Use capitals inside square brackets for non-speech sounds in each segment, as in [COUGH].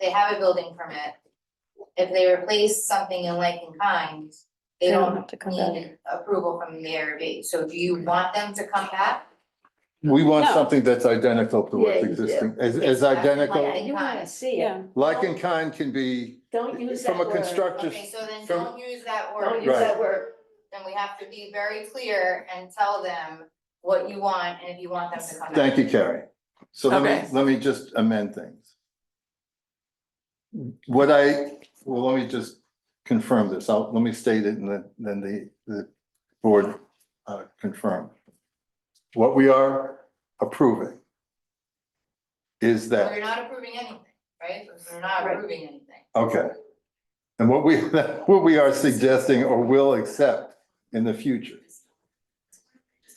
they have a building permit. If they replace something in like and kind, they don't have to come back. need approval from the ARB, so do you want them to come back? We want No. something that's identical to Yeah, what's you do. existing, as, It's as not identical. like- Yeah, you wanna see it, Yeah, Like and kind can be don't use that from a word. constructor, Okay, so then from- don't use that word. Don't use that word, Then we have to be very clear and tell them what you want and if you want them to come back. thank you, Carrie. So let Okay. me, let me just amend things. What I, well, let me just confirm this, I'll, let me state it and then, then the, the board, uh, confirm. What we are approving is that. We're not approving anything, right? We're not Right. approving anything. Okay. And what we, [LAUGHS] what we are suggesting or will accept in the future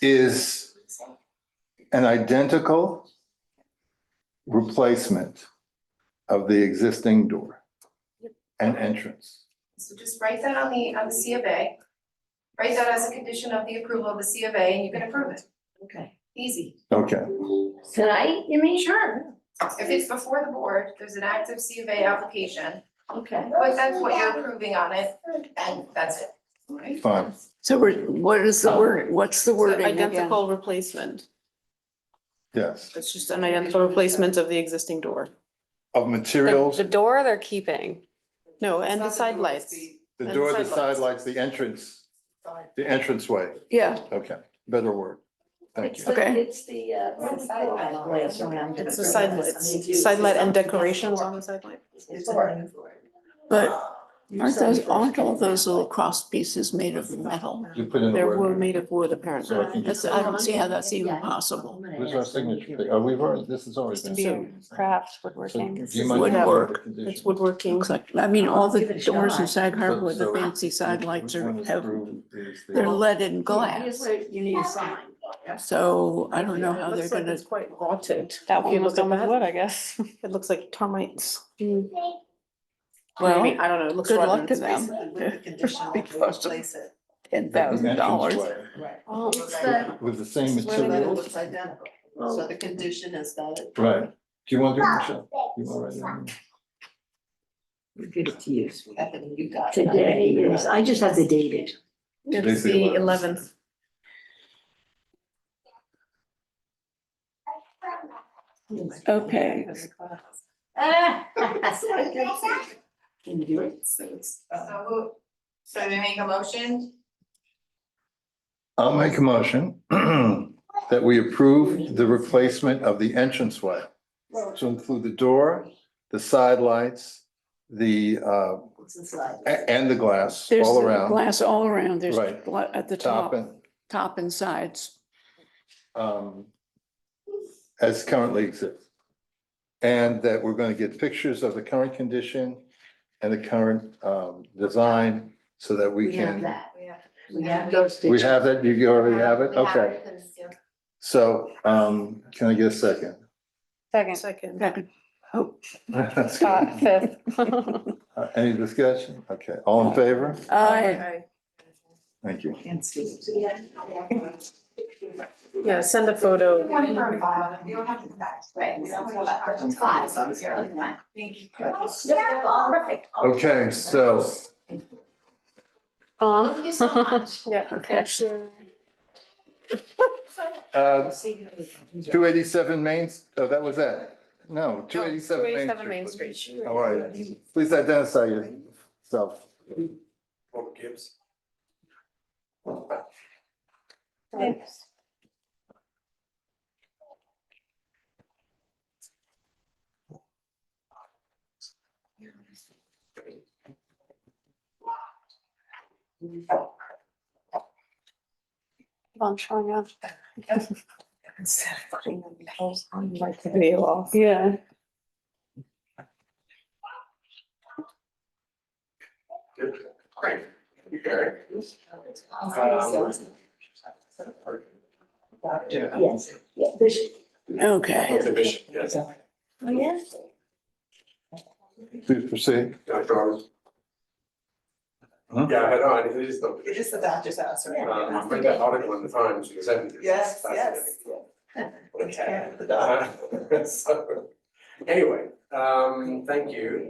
is an identical replacement of the existing door and entrance. So just write that on the, on the C of A. Write that as a condition of the approval of the C of A and you can approve it. okay, Easy. Okay, tonight, you mean, Sure. If it's before the board, there's an active C of A application, okay, but that's what you're approving on it, and that's it. fine. so we're, what is the word, what's the wording again? Identical replacement. Yes, It's just an identical replacement of the existing door. of The materials, the door they're keeping, No, and the side lights. the door, the and sidelights. side lights, the entrance, the entranceway. yeah, Okay, better word. Thank it's you. the, Okay. it's the, uh, the side glass around. It's the side lights, side light and decorations on the side light. but aren't those, aren't all those little cross pieces made of metal? You put in the They were word. made of wood So I apparently. think- That's, I don't see how that's even possible. Where's our signature? Oh, page? Are we, Oh, already- this is already. Used to be Crafts, So woodworking. do you mind- Woodwork. It's woodworking. Looks like, I mean, all the Give it a doors shot. inside So- hardwood, the so fancy side Which- lights which are, one is have, approved is the- they're leaded in Here's glass. where you need a sign. So I don't know how It they're looks like gonna, It's quite rotted. That If one you was look at done with that. wood, I guess. It looks like termites. I mean, well, I don't know, it looks good luck rotten. to them. Because of ten the thousand dollars. entranceway Oh, With the same It's really good. materials, identical, So the condition is that. right? Do you want to do it, Michelle? You want to write it? We'll give it to you. You got Today is, I just have the dated. [LAUGHS] It's the eleventh. Okay. Can you do it? uh, So who, so we make a motion? I'll make a motion [CLEARS THROAT] that we approve the replacement of the entranceway to include the door, the side lights, the, uh, What's inside? a- and the glass There's all the around, glass all around. There's Right. gla- at the top top, and, top and sides. um, as currently exists. And that we're going to get pictures of the current condition and the current, um, design so that we We have can that. We have- We have those We pictures. have that, you you already have it, We have okay, it, it's- yeah. so, um, can I get a second? Second, Second. Second. Oh, Scott, fifth. Uh, [LAUGHS] Any discussion? Okay, all in favor? I, Okay. Thank you. Can't see. [LAUGHS] Yeah, send a photo. One for five, you don't have to do that, right? We don't have that person five, so it's really fine. Thank you. Perfect. Okay, so Aw. Thank you so much. Yeah. Okay. Sure. uh two eighty-seven Main, oh, that was that? No, two eighty-seven Main. 287 Main Street. All right, please identify yourself. I'm showing up. [LAUGHS] Video off. Yeah. Yes, yeah, this, okay. The bishop, yes. oh, yes. Please proceed. Dr. Hmm? Yeah, I know, and it is the, It is the doctor's house, um, I read that article in the Times in the seventies. Yes, yes. [LAUGHS] yes. Anyway, Um, thank you.